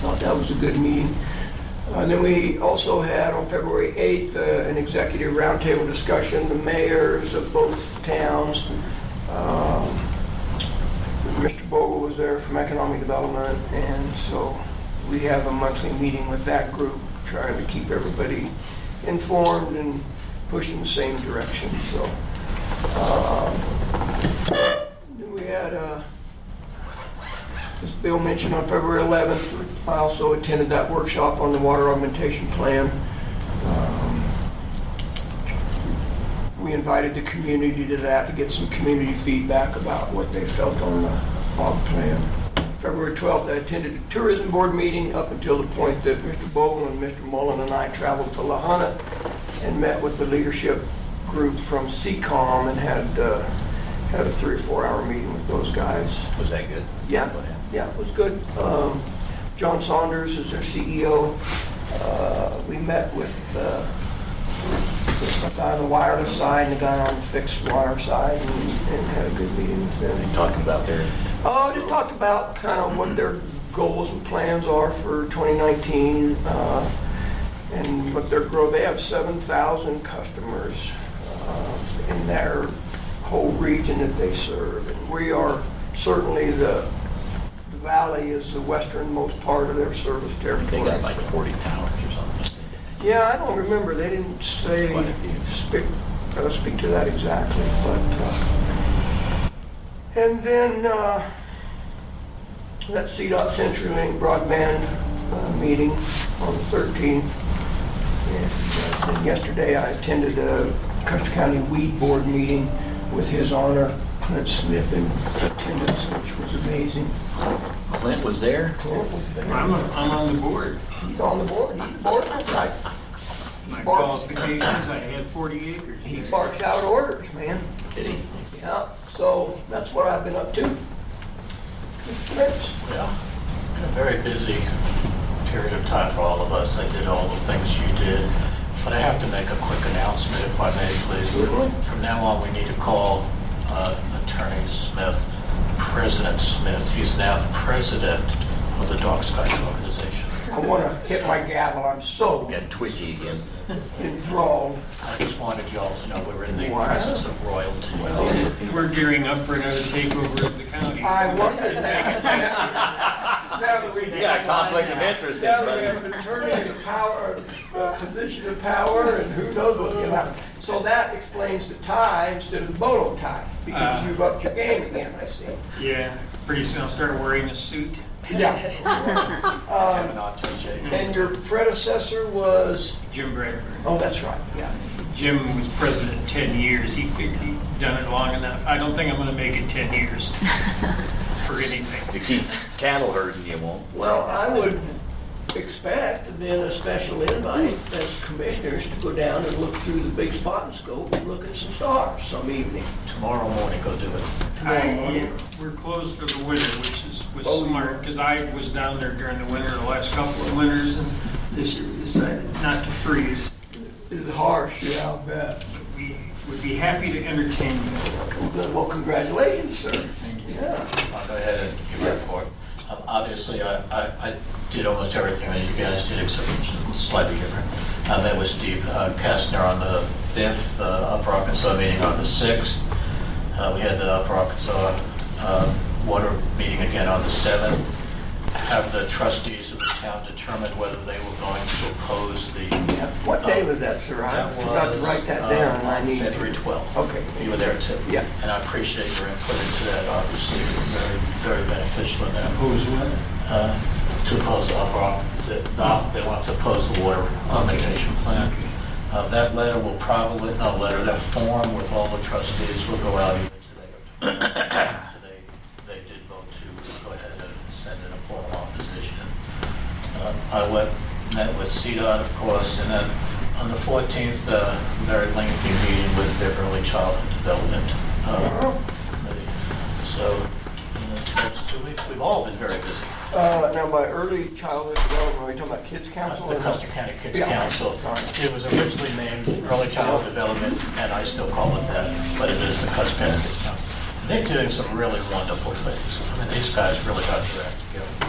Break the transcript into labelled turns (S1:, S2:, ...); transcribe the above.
S1: thought that was a good meeting. And then we also had on February 8th, uh, an executive roundtable discussion, the mayors of both towns. Um, Mr. Bogle was there from Economic Development, and so we have a monthly meeting with that group, trying to keep everybody informed and push in the same direction, so. um, then We had, uh, as Bill mentioned, on February 11th, I also attended that workshop on the water augmentation plan. Um, We invited the community to that to get some community feedback about what they felt on the aug plan. February 12th, I attended a tourism board meeting up until the point that Mr. Bowen and Mr. Mullen and I traveled to Lahana and met with the leadership group from CCOM and had, uh, had a three or four hour meeting with those guys.
S2: Was that good?
S1: Yeah, yeah, it was good. Um, John Saunders is their CEO. Uh, We met with uh, the guy on the wireless side and the guy on the fixed wire side and and had a good meeting with
S2: They
S1: them.
S2: talked about their,
S1: Uh, Just talked about kind of what their goals and plans are for 2019 uh, and what their growth, they have 7,000 customers uh, in their whole region that they serve. And we are certainly the the valley is the westernmost part of their service
S2: they
S1: territory.
S2: got like 40 towers or something.
S1: Yeah, I don't remember, they didn't say,
S2: Quite a few.
S1: speak, uh, speak to that exactly, but, uh, and then, uh, that CDOT CenturyLink broadband, uh, meeting on the 13th. And uh, then yesterday I attended a Custer County Weed Board meeting with his honor, Clint Smith in attendance, which was amazing.
S2: Clint was there?
S1: Clint was there,
S3: I'm, I'm on the board.
S1: he's on the board, he's a board member, I-
S3: My
S1: Barks.
S3: qualifications, I had 40 acres.
S1: he barks out orders, man.
S2: Did he?
S1: Yeah, so that's what I've been up to. Thanks.
S4: Yeah, been a very busy period of time for all of us. I did all the things you did, but I have to make a quick announcement if I may, please.
S2: Certainly.
S4: From now on, we need to call uh, Attorney Smith, President Smith. He's now the president of the Dark Skies Organization.
S1: I want to hit my gavel, I'm so
S2: Got twitchy again.
S1: enthralled.
S4: I just wanted y'all to know we're in the
S1: Wow.
S4: presence of royalty.
S3: We're gearing up for another takeover of the county.
S1: I wondered that. Now that we
S2: Yeah, conflict of interest.
S1: now that we have an attorney in the power, uh, position of power, and who knows what's going to happen. So that explains the tie instead of the bolo tie, because
S3: Uh.
S1: you've upped your game again, I see.
S3: Yeah, pretty soon I'll start wearing a suit.
S1: Yeah,
S4: Have an attaché.
S1: and your predecessor was,
S3: Jim Bradford.
S1: oh, that's right, yeah.
S3: Jim was president 10 years. He figured he'd done it long enough. I don't think I'm going to make it 10 years for anything.
S2: To keep cattle herding, you won't.
S1: Well, I would expect then a special invite as commissioners to go down and look through the big spot and scope and look at some stars some evening.
S4: Tomorrow morning, go do it.
S3: I, we're closed for the winter, which is, was
S1: Oh, you-
S3: smart, because I was down there during the winter, the last couple of winters, and this year we decided not to freeze.
S1: It's harsh, yeah, I'll bet.
S3: We would be happy to entertain you.
S1: Well, congratulations, sir. Thank you. Yeah.
S4: I'll go ahead and give a report. Um, Obviously, I, I I did almost everything that you guys did, except it was slightly different. I met with Steve uh, Kastner on the 5th, uh, Upper Arkansas meeting on the 6th. Uh, We had the Upper Arkansas uh, Water meeting again on the 7th. Have the trustees of the town determine whether they were going to oppose the... uh,
S1: What day was that, sir? I
S4: That
S1: forgot to
S4: was,
S1: write that
S4: uh,
S1: down, and I need to.
S4: February 12th.
S1: Okay.
S4: You were there too.
S1: Yeah.
S4: And I appreciate your input into that, obviously, it was very, very beneficial in that.
S3: Who's what?
S4: Uh, To oppose the upper, no, they want to oppose the water augmentation plan. Uh, That letter will probably, not letter, that form with all the trustees will go out either today or tomorrow. So they- They did vote to go ahead and send in a formal opposition. Uh, I went, met with CDOT, of course, and then on the 14th, uh, very lengthy meeting with their early childhood development uh, committee. So in the next two weeks, we've all been very busy.
S1: Uh, now, by early childhood development, are we talking about kids council?
S4: The
S1: or-
S4: Custer County Kids
S1: Yeah.
S4: Council,
S1: All right.
S4: it was originally named Early Child Development, and I still call it that, but it is the Custer County Kids Council. They're doing some really wonderful things. I mean, these guys really got their act together.